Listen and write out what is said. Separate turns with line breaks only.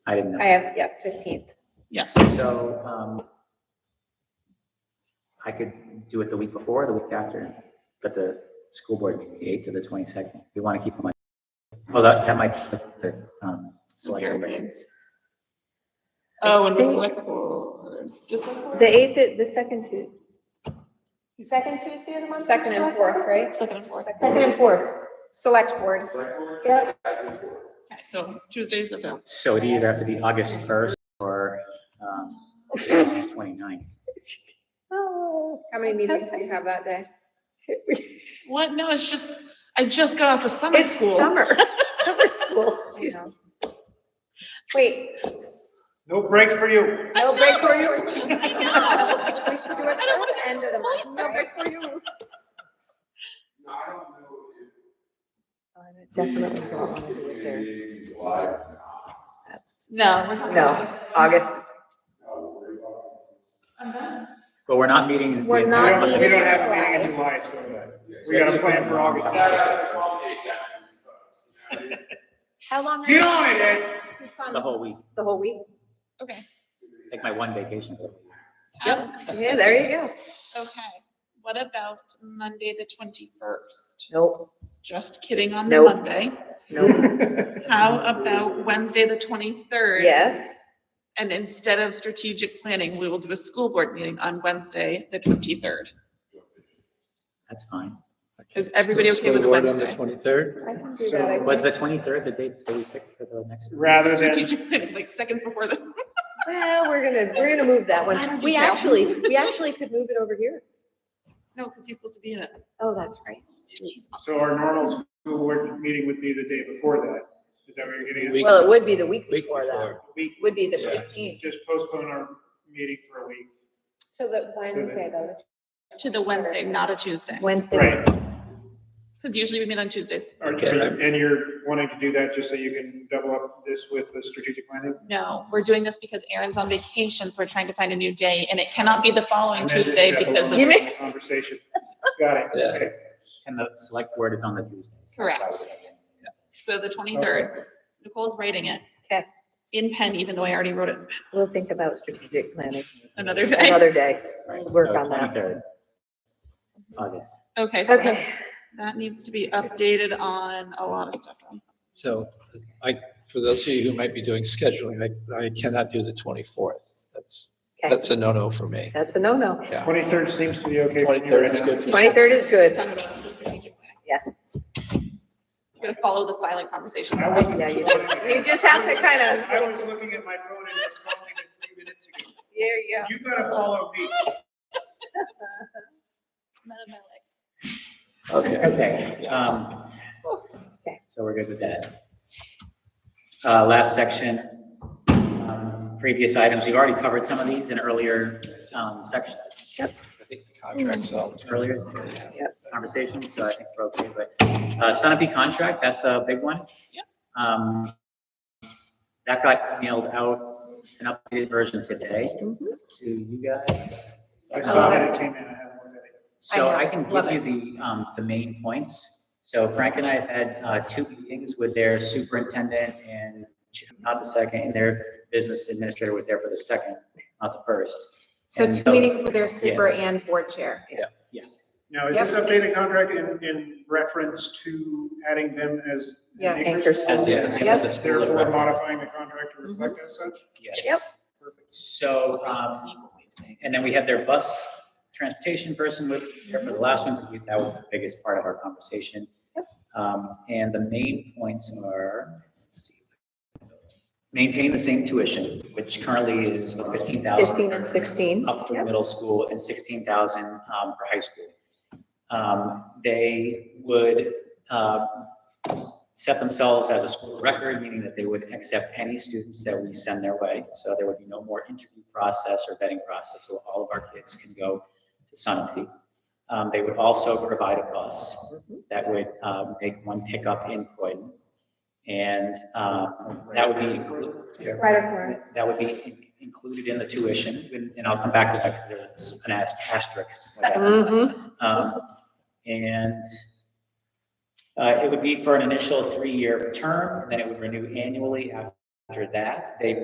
I didn't
I
know.
have, yeah, fifteenth.
Yes.
So, um, I could do it the week before, the week after, but the school board meeting, the eighth to the twenty-second, we want to keep them like, well, that, that might, the, um, select everybody.
Oh, and the
think-
select board. Just like
The
board?
eighth, the second Tuesday,
Second Tuesday of the month?
second and fourth, right?
Second and fourth.
Second and fourth.
Select board.
Yep.
Okay, so Tuesdays, that's out.
So it either have to be August first or, um, August 29th.
Oh.
How many meetings do you have that day?
What? No, it's just, I just got off of summer
It's
school.
summer.
Summer school.
I know. Wait,
No breaks for you.
No break for you.
I know.
we should do it at the end of the month.
No break for you.
No, I don't know
Definitely.
if it's July, nah,
No, we're not.
No, August.
no, we're talking-
But we're not meeting. the
We're
We
not
entire
don't,
month.
we don't have a meeting in July, so uh, we got a plan for August.
That has to accommodate that, you know, you know,
How long?
Get on it, Ed.
The whole week,
The whole week.
Okay.
take my one vacation.
Yep.
Yeah, there you go.
Okay. What about Monday, the twenty-first?
Nope,
Just kidding on the
Nope.
Monday.
nope.
How about Wednesday, the twenty-third?
Yes.
And instead of strategic planning, we will do a school board meeting on Wednesday, the twenty-third.
That's fine.
Is everybody okay with the Wednesday?
Twenty-third?
I can do that. I
Was the twenty-third the date that we picked for the next?
Rather than,
Strategic planning, like seconds before this.
Well, we're gonna, we're gonna move that
I
one.
don't
We
detail.
actually, we actually could move it over here.
No, because he's supposed to be in it.
Oh, that's right.
so our normal school board meeting would be the day before that. Is that what you're getting
Week-
at?
Well, it would be the week
Week
before that.
before.
We
Would be the
Yeah.
fifteenth.
just postpone our meeting for a week.
So the Wednesday though.
To the Wednesday, not a Tuesday.
Wednesday.
Right.
Because usually we meet on Tuesdays.
Or-
Okay.
And you're wanting to do that just so you can double up this with the strategic planning?
No, we're doing this because Aaron's on vacation, so we're trying to find a new day, and it cannot be the following
And then just
Tuesday
step
because
along
of,
You
in the Conversation. Got it.
Yeah.
Okay.
And the select board is on the Tuesdays.
correct. So the twenty-third, Nicole's writing it.
Okay.
In pen, even though I already wrote it
We'll think about strategic planning
another day.
another day.
Right,
Work
so
on that. Mm-hmm.
23rd, August.
Okay, so that-
Okay.
that needs to be updated on a lot of stuff.
So I, for those of you who might be doing scheduling, I, I cannot do the twenty-fourth. That's,
Okay.
that's a no-no for me.
That's a no-no.
Twenty-third seems to be okay. for you right
Twenty-third is
now.
good for.
Twenty-third is good.
Talking about the strategic plan.
Yeah.
You gotta follow the silent conversation.
I wasn't.
Yeah, you-
looking-
you just have to kind of-
I was looking at my phone and responding to three minutes ago.
There you go.
You gotta follow me.
Okay.
Okay, um,
Okay.
so we're good with that. Uh, last section, um, previous items, we've already covered some of these in earlier, um, section,
I think the Contract's out.
earlier
Yep.
conversations, so I think we're okay, but, uh, Sunapee contract, that's a big one.
Yep.
Um, that got mailed out, an updated version today
Mm-hmm.
to you guys.
I saw that it came in, I haven't looked at it.
So
I know.
I can give you the, um, the main points. So Frank and I have had, uh, two meetings with their superintendent and not the second, and their business administrator was there for the second, not the first.
So
And
two meetings with their super and board chair.
Now, is this updated contract in, in reference to adding them as? an
Yeah.
Anchor
As
school?
a- as a school of
Therefore
record.
modifying the contract to reflect
Mm-hmm.
as such?
Yes.
Yep.
So, um, and then we had their bus transportation person with, there for the last one, because that was the biggest part of our conversation. Um, and the main points are, let's see. Maintain the same tuition, which currently is fifteen thousand.
Fifteen and sixteen.
Up for
Yep.
middle school and sixteen thousand, um, for high school. Um, they would, uh, set themselves as a school of record, meaning that they would accept any students that we send their way. So there would be no more interview process or vetting process, so all of our kids can go to Sunapee. Um, they would also provide a bus
Mm-hmm.
that would, um, make one pickup in Croydon. And, um, that would be included.
Right across.
That would be in- included in the tuition, and- and I'll come back to that because there's an as- asterisk. with that.
Mm-hmm.
Um, And uh, it would be for an initial three-year term, and then it would renew annually after After that, they